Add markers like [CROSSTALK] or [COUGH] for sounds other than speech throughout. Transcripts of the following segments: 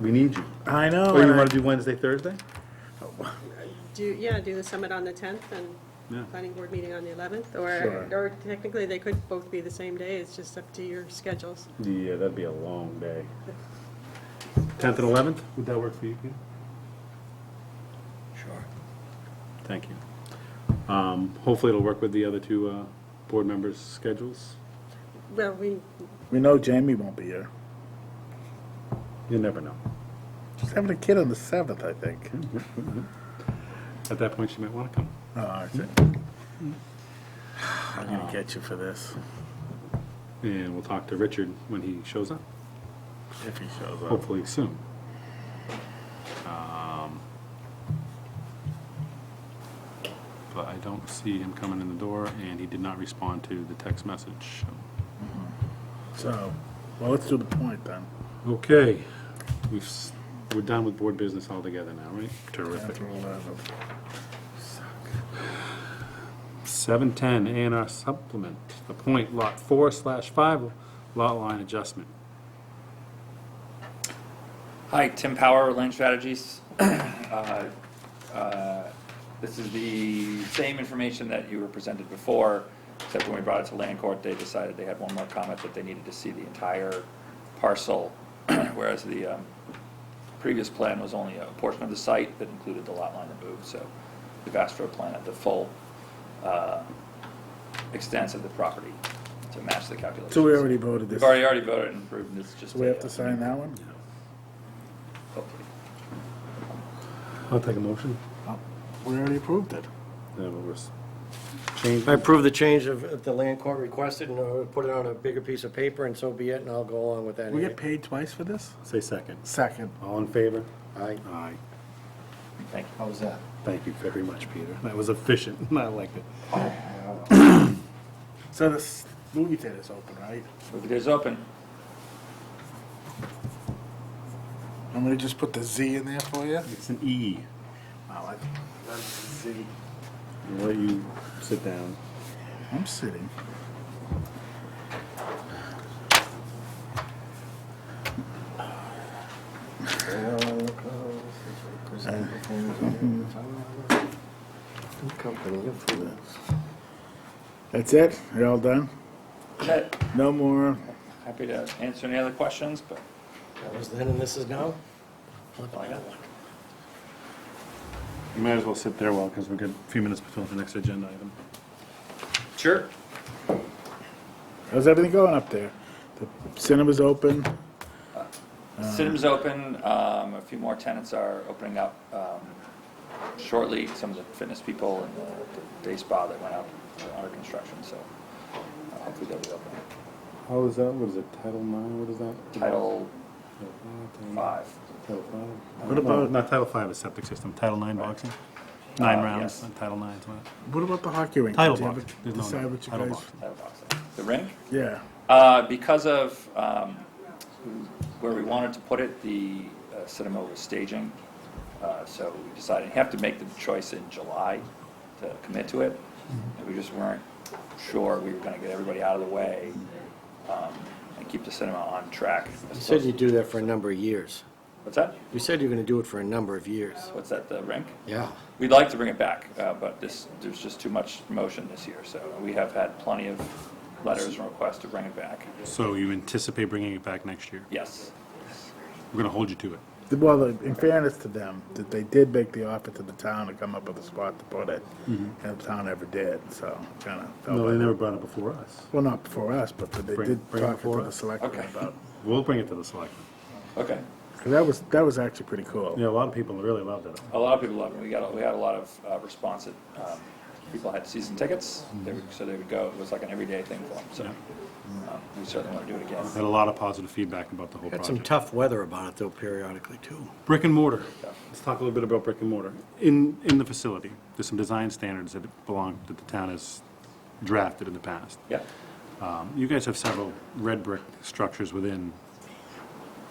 We need you. I know. Or you and I- want to do Wednesday, Thursday? Do, yeah, do the summit on the 10th Yeah. and planning board meeting on the 11th, Sure. or, or technically, they could both be the same day, it's just up to your schedules. Yeah, that'd be a long day. Tenth and eleventh, would that work for you, Peter? Sure. Thank you. Um, Hopefully it'll work with the other two uh, board members' schedules. Well, we, We know Jamie won't be here. You never know. She's having a kid on the seventh, I think. At that point, she might want to come. Oh, I see. I'm gonna get you for this And we'll talk to Richard when he shows up, if he shows up. hopefully soon. Um, But I don't see him coming in the door, and he did not respond to the text message. So, well, let's do the point then. Okay, we've, s- we're done with board business altogether now, right? Terrific. After 11. Seven ten, A and R supplement, appoint lot four slash five, lot line adjustment. Hi, Tim Power, Land Strategies. [CLEARS THROAT] Uh, uh, This is the same information that you were presented before, except when we brought it to Land Court, they decided they had one more comment that they needed to see the entire parcel, [CLEARS THROAT] whereas the um, previous plan was only a portion of the site that included the lot line removed, so we've asked for a plan of the full uh, extent of the property to match the calculations. So we already voted this. We've already, already voted and approved, and it's just. So we a, have to uh, sign that one? hopefully. I'll take a motion. Oh, We already approved it. Change, I approve the change of, of the land court requested, and uh, put it on a bigger piece of paper, and so be it, and I'll go along with that. We get paid twice for this? say second. Second. All in favor? Aye. Aye. Thank you. How was that? Thank you very much, Peter. That was efficient. [LAUGHS] I liked it. So this movie theater's open, right? Movie theater's open. I'm gonna just put the Z in there for you. It's an E. Wow, I- that's Z. I'll let you sit down. I'm sitting. That's it? You're all done? That- No more? Happy to answer any other questions, but That was then and this is now? Look, I got one. You might as well sit there well, because we've got a few minutes before the next agenda item. sure. How's everything going up there? The cinema's open? Cinema's open, um, a few more tenants are opening up, um, shortly, some of the fitness people and the- the day spa that went up are under construction, so uh, hopefully they'll be open. How is that? What is it? Title nine? What is that? Title five. Title five. What about, not Title five is septic system, Title nine boxing? Nine Uh, rounds, yes. Title nine's what? What about the hockey rink? Title Did you ever boxing. There's no Decide name. what you Title guys... boxing. Title box. The rink? Yeah. Uh, Because of um, where we wanted to put it, the uh, cinema was staging, Uh, so we decided, you have to make the choice in July to commit to it, Mm-hmm. and we just weren't sure we were going to get everybody out of the way um, and keep the cinema on track. You said you'd do that for a number of years. What's that? You said you were gonna do it for a number of years. What's that, the rink? Yeah. We'd like to bring it back, uh, but this, there's just too much motion this year, so we have had plenty of letters and requests to bring it back. So you anticipate bringing it back next year? Yes. We're gonna hold you to it. Well, in fairness to them, that they did make the offer to the town to come up with a spot to put it, and the town never did, so kind of. No, Mm-hmm. they never brought it before us. Well, not before us, but they Bring- did bring it talk before to the us. selectmen Okay. about, We'll bring it to the selectmen. Okay. because that was, that was actually pretty cool. Yeah, a lot of people really loved it. A lot of people loved it. We got, we had a lot of uh, response that um, people had season tickets, they would, so they would go. It was like an everyday thing for them, so um, we certainly want to do it again. Had a lot of positive feedback about the whole Got some project. tough weather about it though periodically too. Brick and mortar. Let's talk a little bit about brick and mortar. In, in the facility, there's some design standards that belong, that the town has drafted in the past. Yeah, Um, You guys have several red brick structures within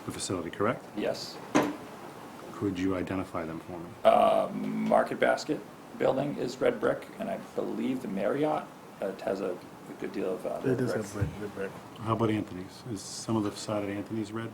the facility, correct? yes. Could you identify them for me? Market Basket building is red brick, and I believe the Marriott uh, has a a good deal of uh, It red is a brick. brick, the brick. How about Anthony's? Is some of the side at Anthony's red?